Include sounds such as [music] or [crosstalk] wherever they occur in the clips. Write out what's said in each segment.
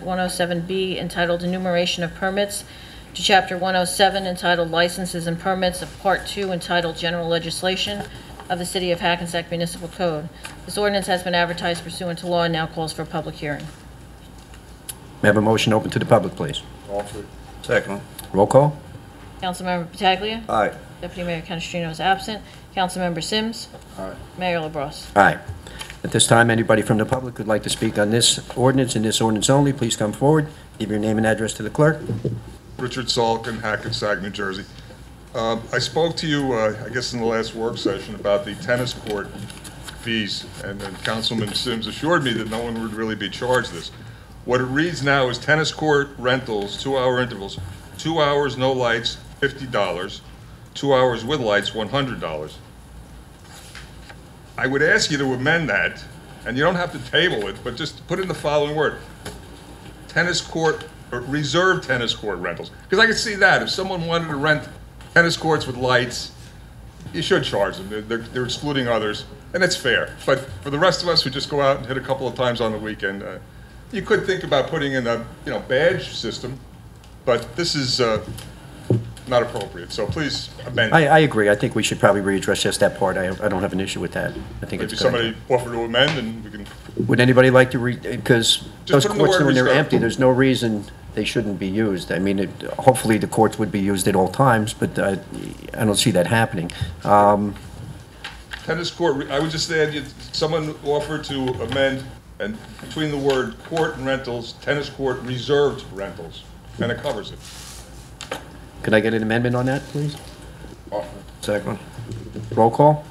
107B entitled Enumeration of Permits, to Chapter 107 entitled Licenses and Permits of Part 2 entitled General Legislation of the City of Hackensack Municipal Code. This ordinance has been advertised pursuant to law and now calls for a public hearing. May I have a motion open to the public, please? Offered. Second. Roll call? Councilmember Pataglia. Aye. Deputy Mayor Canestrino is absent. Councilmember Sims. Aye. Mayor LaBrus. Aye. At this time, anybody from the public who'd like to speak on this ordinance and this ordinance only, please come forward, give your name and address to the clerk. Richard Salkin, Hackensack, New Jersey. Um, I spoke to you, uh, I guess, in the last work session about the tennis court fees, and then Councilman Sims assured me that no one would really be charged this. What it reads now is tennis court rentals, two-hour intervals, two hours no lights, $50, two hours with lights, $100. I would ask you to amend that, and you don't have to table it, but just put in the following word, tennis court, or reserve tennis court rentals. Because I could see that, if someone wanted to rent tennis courts with lights, you should charge them, They're- they're, they're excluding others, and that's fair. But for the rest of us who just go out and hit a couple of times on the weekend, uh, you could think about putting in a, you know, badge system, but this is, uh, not appropriate, so please amend. I, I agree, I think we should probably readdress just that part, I, I don't have an issue with that. I think it's Maybe good. somebody offer to amend, and we can, Would anybody like to read, because those put in the courts, word when they're reserved. empty, there's no reason they shouldn't be used. I mean, it- hopefully, the courts would be used at all times, but uh, I don't see that happening. Um, tennis court, re- I would just add, you- someone offered to amend, and between the word court and rentals, tennis court reserved rentals, and it covers it. Could I get an amendment on that, please? Oh, Offered. Second. Roll call?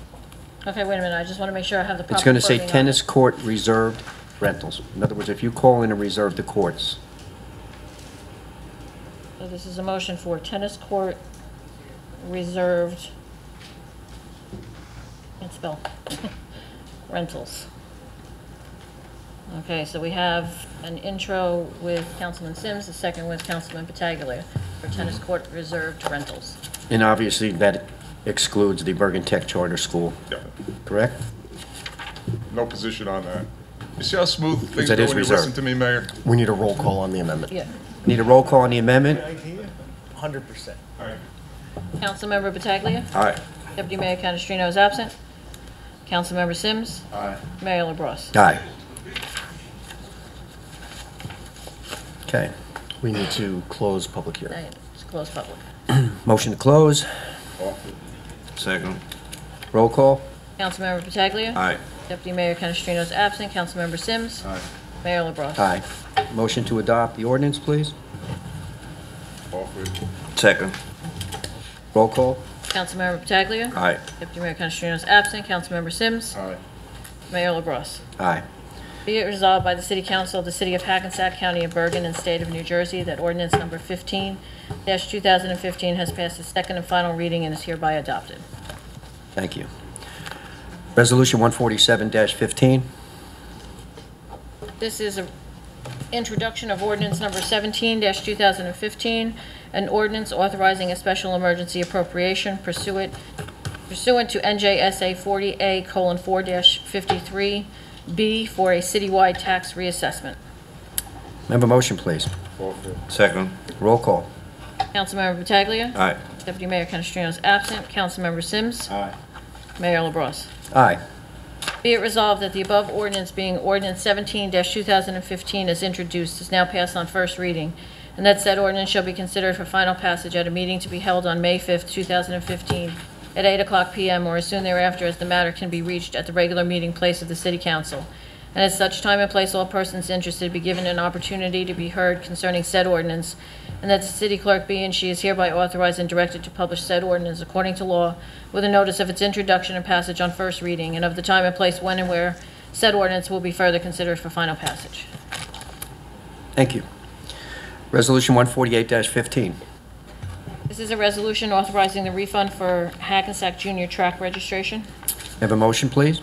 Okay, wait a minute, I just want to make sure I have the proper It's going to say wording on it. tennis court reserved rentals. In other words, if you call in and reserve the courts, So this is a motion for tennis court reserved, can't spell, [laughs] rentals. Okay, so we have an intro with Councilman Sims, a second with Councilman Pataglia for tennis court reserved rentals. and obviously, that excludes the Bergen Tech Charter School, Yeah, correct? no position on that. You see how smooth things go that when is you listen reserved. to me, Mayor? We need a roll call on the amendment. Yeah. Need a roll call on the amendment? Hundred percent. Councilmember Pataglia. Aye. Deputy Mayor Canestrino is absent. Councilmember Sims. Aye. Mayor LaBrus. Aye. Okay. We need to close public hearing. Aye, It's closed public. Motion to close. Offered. Second. Roll call? Councilmember Pataglia. Aye. Deputy Mayor Canestrino is absent. Councilmember Sims. Aye. Mayor LaBrus. Aye. Motion to adopt the ordinance, please? Offered. Second. Roll call? Councilmember Pataglia. Aye. Deputy Mayor Canestrino is absent. Councilmember Sims. Aye. Mayor LaBrus. Aye. Be it resolved by the City Council of the City of Hackensack County of Bergen and State of New Jersey that ordinance number 15-2015 has passed its second and final reading and is hereby adopted. Thank you. Resolution 147-15. This is an introduction of ordinance number 17-2015, an ordinance authorizing a special emergency appropriation pursuant pursuant to NJSA 40A:4-53B for a citywide tax reassessment. May I have a motion, please? Offered. Second. Roll call? Councilmember Pataglia. Aye. Deputy Mayor Canestrino is absent. Councilmember Sims. Aye. Mayor LaBrus. Aye. Be it resolved that the above ordinance being ordinance 17-2015 as introduced is now passed on first reading, and that said ordinance shall be considered for final passage at a meeting to be held on May 5th, 2015, at 8 o'clock PM or as soon thereafter as the matter can be reached at the regular meeting place of the City Council. And at such time and place, all persons interested be given an opportunity to be heard concerning said ordinance, and that the city clerk be and she is hereby authorized and directed to publish said ordinance according to law with a notice of its introduction and passage on first reading, and of the time and place when and where said ordinance will be further considered for final passage. Thank you. Resolution 148-15. This is a resolution authorizing the refund for Hackensack Junior Track registration. Have a motion, please?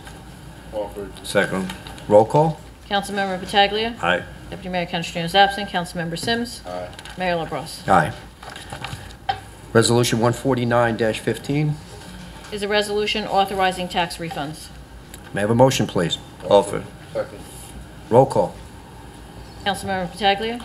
Offered. Second. Roll call? Councilmember Pataglia. Aye. Deputy Mayor Canestrino is absent. Councilmember Sims. Aye. Mayor LaBrus. Aye. Resolution 149-15. Is a resolution authorizing tax refunds. May I have a motion, please? Offered. Second. Roll call? Councilmember Pataglia.